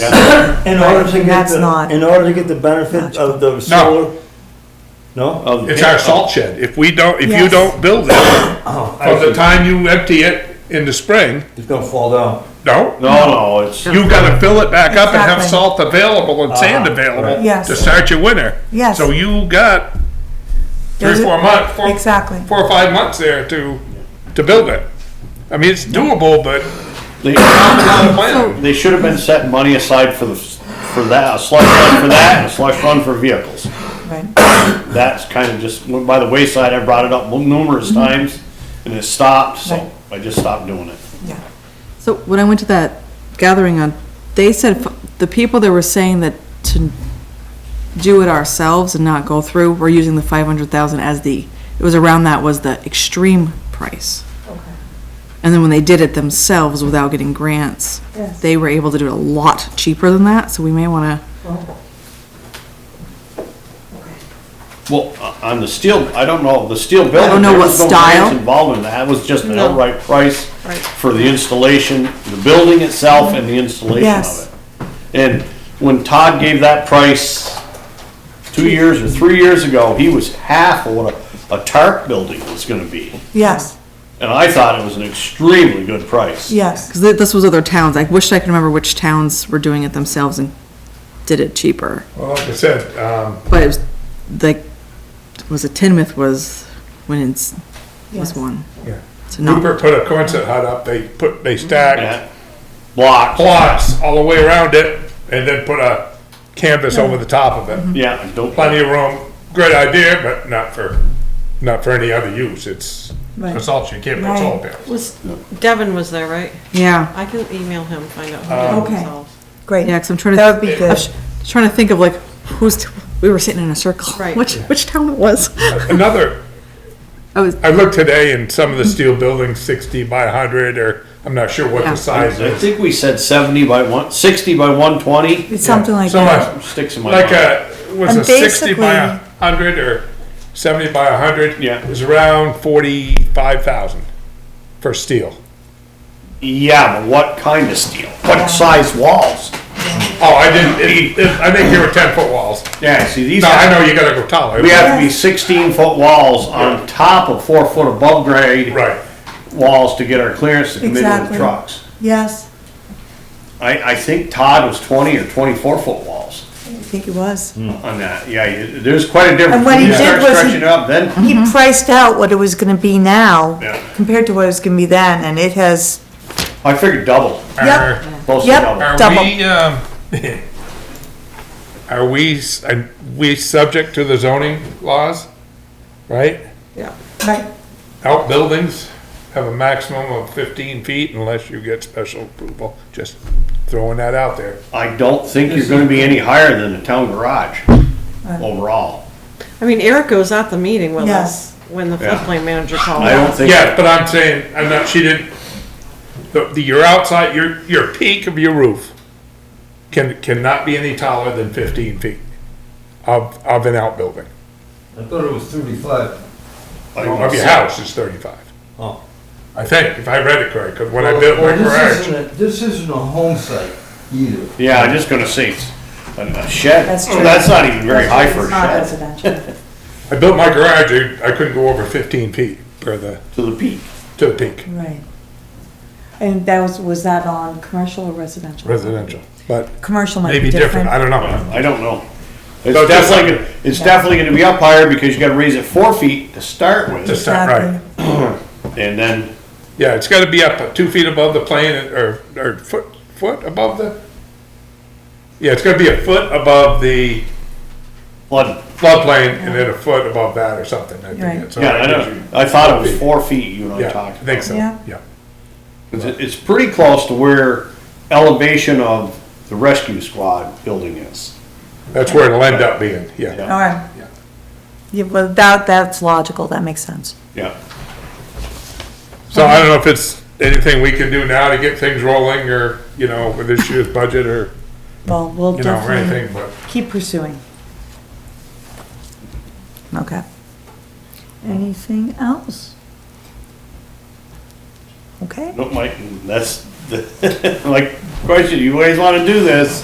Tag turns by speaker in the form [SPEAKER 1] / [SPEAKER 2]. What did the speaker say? [SPEAKER 1] In order to get
[SPEAKER 2] and that's
[SPEAKER 1] the,
[SPEAKER 2] not-
[SPEAKER 1] in order to get the benefit of the solar? No? of-
[SPEAKER 3] It's our salt shed. If we don't, if you
[SPEAKER 2] Yes.
[SPEAKER 3] don't build it,
[SPEAKER 1] Oh, I
[SPEAKER 3] from
[SPEAKER 1] see.
[SPEAKER 3] the time you empty it in the spring,
[SPEAKER 1] It's gonna fall down.
[SPEAKER 3] no,
[SPEAKER 4] No, no, it's,
[SPEAKER 3] you gotta fill it back up and have
[SPEAKER 2] Exactly.
[SPEAKER 3] salt available and sand available
[SPEAKER 2] Yes.
[SPEAKER 3] to start your winter.
[SPEAKER 2] Yes.
[SPEAKER 3] So you got three,
[SPEAKER 2] There's a-
[SPEAKER 3] four months, four,
[SPEAKER 2] Exactly.
[SPEAKER 3] four or five months there to, to build it. I mean, it's doable, but
[SPEAKER 4] they,
[SPEAKER 3] not a plan.
[SPEAKER 4] they should have been setting money aside for the, for that, a slush fund for that, and a slush fund for vehicles.
[SPEAKER 2] Right.
[SPEAKER 4] That's kind of just went by the wayside. I brought it up numerous times, and it stopped, so I just stopped doing it.
[SPEAKER 2] Yeah.
[SPEAKER 5] So when I went to that gathering on, they said, f- the people that were saying that to do it ourselves and not go through, were using the five hundred thousand as the, it was around that was the extreme price. And then when they did it themselves without getting grants,
[SPEAKER 2] Yes.
[SPEAKER 5] they were able to do it a lot cheaper than that, so we may wanna,
[SPEAKER 4] Well, uh, on the steel, I don't know, the steel building.
[SPEAKER 5] don't know
[SPEAKER 4] there
[SPEAKER 5] what
[SPEAKER 4] was no grants
[SPEAKER 5] style.
[SPEAKER 4] Involved in that, It was just an
[SPEAKER 5] No.
[SPEAKER 4] outright price
[SPEAKER 5] Right.
[SPEAKER 4] for the installation, the building itself and the installation
[SPEAKER 2] Yes.
[SPEAKER 4] of it. And when Todd gave that price two years or three years ago, he was half of what a, a tarp building was gonna be.
[SPEAKER 2] Yes,
[SPEAKER 4] And I thought it was an extremely good price.
[SPEAKER 2] yes.
[SPEAKER 5] cause thi- this was other towns, I wish I could remember which towns were doing it themselves and did it cheaper.
[SPEAKER 3] Well, like I said, um,
[SPEAKER 5] But it was, like, was it Tinmouth was, when it's, was
[SPEAKER 2] Yes.
[SPEAKER 5] one.
[SPEAKER 3] Yeah.
[SPEAKER 5] So not-
[SPEAKER 3] Rupert put a concert hut up, they put, they
[SPEAKER 4] Yeah.
[SPEAKER 3] stacked
[SPEAKER 4] Block,
[SPEAKER 3] plots all the way around it, and then put a canvas over the top of it.
[SPEAKER 4] yeah, I don't.
[SPEAKER 3] Plenty of room, great idea, but not for, not for any other use, it's, for
[SPEAKER 2] Right.
[SPEAKER 3] salt, you can't put salt there.
[SPEAKER 6] Was, Devin was there, right?
[SPEAKER 5] Yeah,
[SPEAKER 6] I can email him, find out who
[SPEAKER 2] Um, Okay.
[SPEAKER 6] did it themselves.
[SPEAKER 2] Great.
[SPEAKER 5] yeah, because I'm trying to.
[SPEAKER 2] That would be
[SPEAKER 5] I was
[SPEAKER 2] good.
[SPEAKER 5] Trying to think of like, who's, we were sitting in a circle.
[SPEAKER 6] Right.
[SPEAKER 5] Which, which town it was.
[SPEAKER 3] Another,
[SPEAKER 5] I was-
[SPEAKER 3] I looked today in some of the steel buildings, sixty by hundred, or, I'm not sure what
[SPEAKER 5] Yeah.
[SPEAKER 3] the size
[SPEAKER 4] I
[SPEAKER 3] is.
[SPEAKER 4] think we said seventy by one, sixty by one twenty,
[SPEAKER 2] It's something like
[SPEAKER 3] So
[SPEAKER 2] that.
[SPEAKER 3] much,
[SPEAKER 4] sticks in my mind.
[SPEAKER 3] like a, was
[SPEAKER 2] And
[SPEAKER 3] it sixty by a
[SPEAKER 2] basically-
[SPEAKER 3] hundred or seventy by a hundred?
[SPEAKER 4] Yeah.
[SPEAKER 3] It was around forty-five thousand for steel.
[SPEAKER 4] Yeah, but what kind of steel? What size walls?
[SPEAKER 3] Oh, I didn't, it- it- I think you were ten-foot walls.
[SPEAKER 4] Yeah, see, these,
[SPEAKER 3] No, I
[SPEAKER 4] have-
[SPEAKER 3] know you gotta go taller.
[SPEAKER 4] we have to be sixteen foot walls on top of four foot above grade
[SPEAKER 3] Right,
[SPEAKER 4] walls to get our clearance to come in with
[SPEAKER 2] Exactly.
[SPEAKER 4] trucks.
[SPEAKER 2] Yes,
[SPEAKER 4] I, I think Todd was twenty or twenty-four foot walls
[SPEAKER 2] I think it was.
[SPEAKER 3] Mm-hmm.
[SPEAKER 4] on that, yeah, you- there's quite a difference.
[SPEAKER 2] And what he
[SPEAKER 4] When you
[SPEAKER 2] did
[SPEAKER 4] start
[SPEAKER 2] was he-
[SPEAKER 4] Stretching it up, then,
[SPEAKER 2] He priced out what it was gonna be now
[SPEAKER 4] Yeah.
[SPEAKER 2] compared to what it was gonna be then, and it has,
[SPEAKER 4] I figured double,
[SPEAKER 3] Are-
[SPEAKER 2] yep,
[SPEAKER 4] close to
[SPEAKER 2] Yep.
[SPEAKER 4] double.
[SPEAKER 3] Are
[SPEAKER 2] Double.
[SPEAKER 3] we, um, are we, s- are we subject to the zoning laws, right?
[SPEAKER 6] Yeah.
[SPEAKER 2] right,
[SPEAKER 3] Outbuildings have a maximum of fifteen feet unless you get special approval, just throwing that out there.
[SPEAKER 4] I don't think you're gonna be any higher than the town garage overall.
[SPEAKER 6] I mean, Erica was at the meeting with
[SPEAKER 2] Yes.
[SPEAKER 6] us when the
[SPEAKER 4] Yeah.
[SPEAKER 6] floodplain manager called.
[SPEAKER 4] I don't think,
[SPEAKER 3] Yeah, but I'm saying, I'm not, she didn't, the, the, your outside, your, your peak of your roof can, cannot be any taller than fifteen feet of, of an outbuilding.
[SPEAKER 7] I thought it was thirty-five.
[SPEAKER 3] Of your house is thirty-five.
[SPEAKER 7] Oh.
[SPEAKER 3] I think, if I read it correct, because when I
[SPEAKER 7] Well,
[SPEAKER 3] built my
[SPEAKER 7] well, this
[SPEAKER 3] garage,
[SPEAKER 7] isn't a- This isn't a home site either.
[SPEAKER 4] yeah, I'm just gonna say, it's a a shed,
[SPEAKER 2] That's true.
[SPEAKER 4] that's not even very high for a
[SPEAKER 2] it's not
[SPEAKER 4] shed.
[SPEAKER 2] residential.
[SPEAKER 3] I built my garage, I- I couldn't go over fifteen feet per the,
[SPEAKER 4] to the peak.
[SPEAKER 3] to the peak,
[SPEAKER 2] Right. And that was, was that on commercial or residential?
[SPEAKER 3] residential. But
[SPEAKER 2] Commercial might be
[SPEAKER 3] maybe different, I
[SPEAKER 2] different.
[SPEAKER 3] don't know.
[SPEAKER 4] I don't know. It's
[SPEAKER 3] So just
[SPEAKER 4] definitely,
[SPEAKER 3] like-
[SPEAKER 4] gonna- it's definitely gonna be up higher because you gotta raise it four feet to start
[SPEAKER 3] Just
[SPEAKER 4] with.
[SPEAKER 3] that,
[SPEAKER 2] Exactly.
[SPEAKER 3] right.
[SPEAKER 4] And then,
[SPEAKER 3] Yeah, it's gotta be up two feet above the plane or, or foot, foot above the, yeah, it's gonna be a foot above the
[SPEAKER 4] flood.
[SPEAKER 3] floodplain and then a foot above that or something, I think
[SPEAKER 2] Right.
[SPEAKER 3] that's.
[SPEAKER 4] yeah, I know, I thought it was four feet you and I
[SPEAKER 3] Yeah, I
[SPEAKER 4] talked
[SPEAKER 3] think
[SPEAKER 4] about.
[SPEAKER 3] so,
[SPEAKER 2] Yeah.
[SPEAKER 3] yeah.
[SPEAKER 4] It's it's pretty close to where elevation of the rescue squad building is.
[SPEAKER 3] That's where it'll end up being, yeah.
[SPEAKER 4] Yeah.
[SPEAKER 2] All right.
[SPEAKER 3] Yeah.
[SPEAKER 2] Yeah, well, that, that's logical, that makes sense.
[SPEAKER 4] Yeah,
[SPEAKER 3] So I don't know if it's anything we can do now to get things rolling or, you know, with this year's budget or,
[SPEAKER 2] Well, we'll
[SPEAKER 3] you know, or
[SPEAKER 2] definitely
[SPEAKER 3] anything, but.
[SPEAKER 2] keep pursuing. Okay. Anything else? Okay.
[SPEAKER 4] no, Mike, that's, the like, question, you always wanna do this.